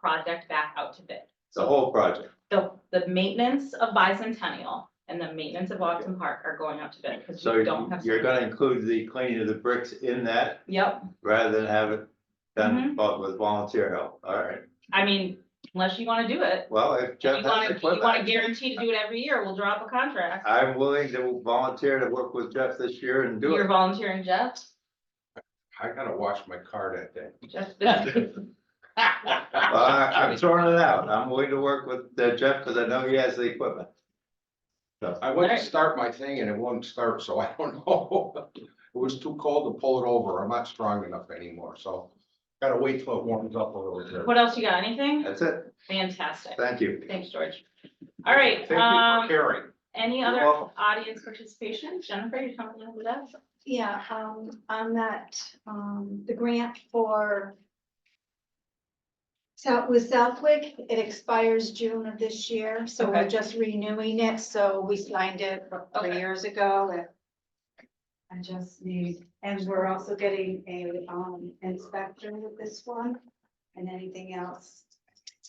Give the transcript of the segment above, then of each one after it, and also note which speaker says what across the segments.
Speaker 1: project back out to bid.
Speaker 2: the whole project.
Speaker 1: The, the maintenance of bicentennial and the maintenance of Watson Park are going out to bid because
Speaker 2: So
Speaker 1: we don't have.
Speaker 2: you're gonna include the cleaning of the bricks in that
Speaker 1: Yep,
Speaker 2: rather than have it
Speaker 1: Mm-hmm.
Speaker 2: done vol- with volunteer help. All right.
Speaker 1: I mean, unless you wanna do it,
Speaker 2: Well, if
Speaker 1: you
Speaker 2: Jeff has
Speaker 1: wanna,
Speaker 2: the
Speaker 1: you wanna
Speaker 2: equipment,
Speaker 1: guarantee to do it every year, we'll draw up a contract.
Speaker 2: I'm willing to volunteer to work with Jeff this year and do
Speaker 1: You're
Speaker 2: it.
Speaker 1: volunteering, Jeff?
Speaker 3: I gotta wash my car that day. Uh,
Speaker 1: Jeff,
Speaker 2: Well, I- I'm throwing it out. I'm willing to work with uh, Jeff because I know he has the equipment.
Speaker 3: I went to start my thing and it wouldn't start, so I don't know. It was too cold to pull it over. I'm not strong enough anymore, so gotta wait till it warms up a little bit.
Speaker 1: what else you got? Anything?
Speaker 2: That's it.
Speaker 1: Fantastic.
Speaker 2: Thank you.
Speaker 1: Thanks, George. All right,
Speaker 3: Thank you for
Speaker 1: um,
Speaker 3: caring.
Speaker 1: any
Speaker 2: You're
Speaker 1: other
Speaker 2: welcome.
Speaker 1: audience participation? Jennifer, you coming in with us?
Speaker 4: Yeah, um, on that, um, the grant for. So with Southwick, it expires June of this year, so we're
Speaker 1: Okay.
Speaker 4: just renewing it, so we signed it
Speaker 1: Okay.
Speaker 4: three years ago and. I just need, and we're also getting a, um, inspector with this one and anything else.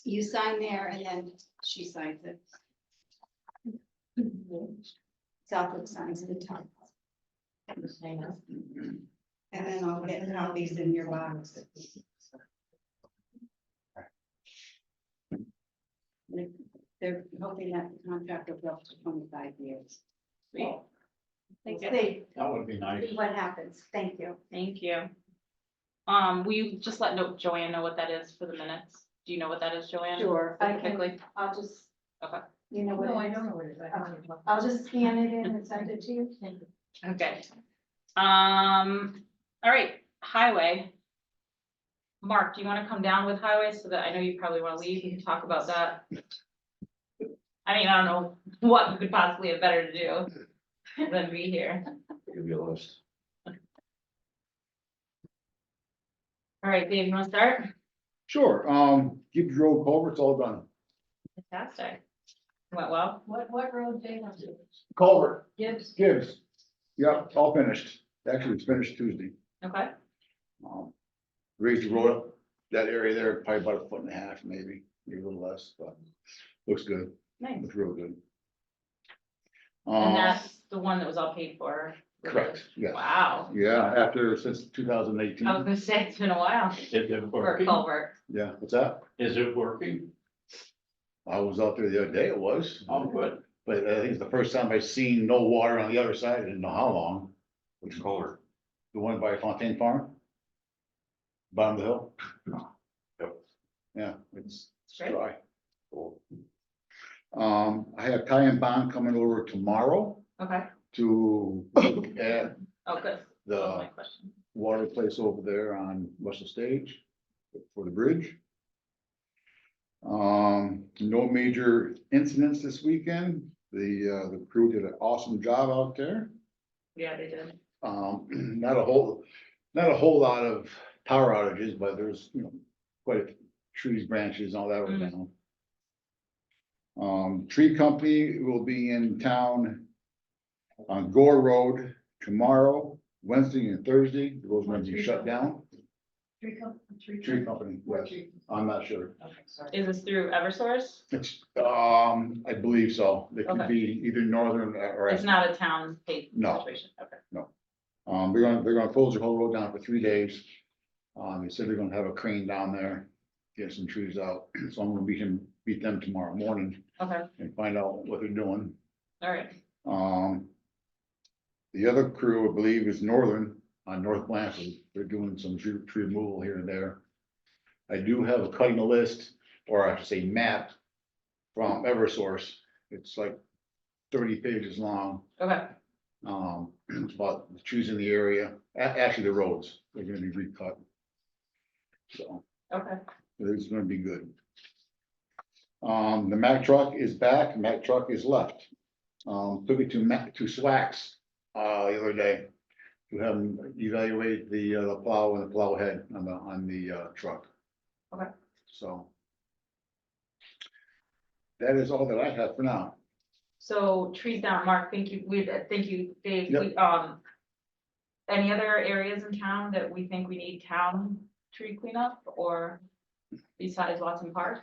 Speaker 4: You sign there and then she signs it. Southwick signs at the top. And then I'll get copies in your box. They're hoping that the contract will go up to twenty-five years.
Speaker 1: Sweet. Thank you.
Speaker 4: See
Speaker 3: That would be nice.
Speaker 4: what happens. Thank you.
Speaker 1: Thank you. Um, will you just let no- Joanne know what that is for the minutes? Do you know what that is, Joanne?
Speaker 4: Sure. I can,
Speaker 1: Specifically,
Speaker 4: I'll just.
Speaker 1: Okay.
Speaker 4: You know what? No, I don't know what it is. Uh, I'll just scan it in and send it to you.
Speaker 1: okay. Um, all right, highway. Mark, do you wanna come down with highway so that I know you probably wanna leave, we can talk about that? I mean, I don't know what you could possibly have better to do than be here.
Speaker 3: Give you a list.
Speaker 1: All right, Dave, you wanna start?
Speaker 5: Sure, um, Gibbs Road culvert's all done.
Speaker 1: Fantastic. Went well?
Speaker 6: What, what road they want to,
Speaker 5: Culvert.
Speaker 6: Gibbs,
Speaker 5: Gibbs. Yep, all finished. Actually, it's finished Tuesday.
Speaker 1: Okay,
Speaker 5: Um, Raised the road, up that area there, probably about a foot and a half, maybe, maybe a little less, but looks good,
Speaker 1: nice.
Speaker 5: looks real good.
Speaker 1: And
Speaker 5: Um,
Speaker 1: that's the one that was all paid for?
Speaker 5: correct, yeah,
Speaker 1: Wow,
Speaker 5: yeah, after, since two thousand eighteen,
Speaker 1: I was gonna say, it's been a while
Speaker 7: Is it
Speaker 1: for a
Speaker 7: working?
Speaker 1: culvert.
Speaker 5: yeah, what's that?
Speaker 7: Is it working?
Speaker 5: I was out there the other day, it was.
Speaker 7: Oh, good.
Speaker 5: But I think it's the first time I've seen no water on the other side, I didn't know how long.
Speaker 3: It's colder.
Speaker 5: The one by Fontaine Farm? Bottom of the hill?
Speaker 3: Yep.
Speaker 5: Yeah, it's
Speaker 1: Straight.
Speaker 5: dry. Um, I have Ty and Bond coming over tomorrow
Speaker 1: Okay,
Speaker 5: to look at
Speaker 1: oh, good. That was my
Speaker 5: the
Speaker 1: question.
Speaker 5: water place over there on Russell Stage for the bridge. Um, no major incidents this weekend. The, uh, the crew did an awesome job out there.
Speaker 1: Yeah, they did.
Speaker 5: Um, not a whole, not a whole lot of power outages, but there's, you know, quite a few trees, branches, all that were
Speaker 1: Mhm.
Speaker 5: down. Um, tree company will be in town on Gore Road tomorrow, Wednesday and Thursday, those ones you shut down.
Speaker 6: tree company, tree.
Speaker 5: Tree company,
Speaker 6: Or
Speaker 5: yes,
Speaker 6: tree-
Speaker 5: I'm not sure.
Speaker 6: Okay, sorry.
Speaker 1: Is this through Eversource?
Speaker 5: It's, um, I believe so. They
Speaker 1: Okay.
Speaker 5: could be either northern or.
Speaker 1: It's not a town paid
Speaker 5: No.
Speaker 1: situation, okay.
Speaker 5: Um, they're gonna, they're gonna close the whole road down for three days. Um, they said they're gonna have a crane down there, get some trees out, so I'm gonna beat him, beat them tomorrow morning
Speaker 1: Okay,
Speaker 5: and find out what they're doing.
Speaker 1: all right,
Speaker 5: Um. The other crew, I believe, is Northern on North Blanford. They're doing some tree, tree removal here and there. I do have a cutting list, or I should say map from Eversource. It's like thirty pages long.
Speaker 1: okay,
Speaker 5: Um, about choosing the area, a- actually the roads, they're gonna be recut. So,
Speaker 1: okay.
Speaker 5: it's gonna be good. Um, the Mack truck is back, Mack truck is left. Um, took it to Mack, to Swax, uh, the other day. To have them evaluate the, uh, the plow and the plow head on the, on the, uh, truck.
Speaker 1: Okay.
Speaker 5: So. That is all that I have for now.
Speaker 1: So trees down, Mark, thank you, we, uh, thank you, Dave, we, um. Any other areas in town that we think we need town tree cleanup or besides Watson Park?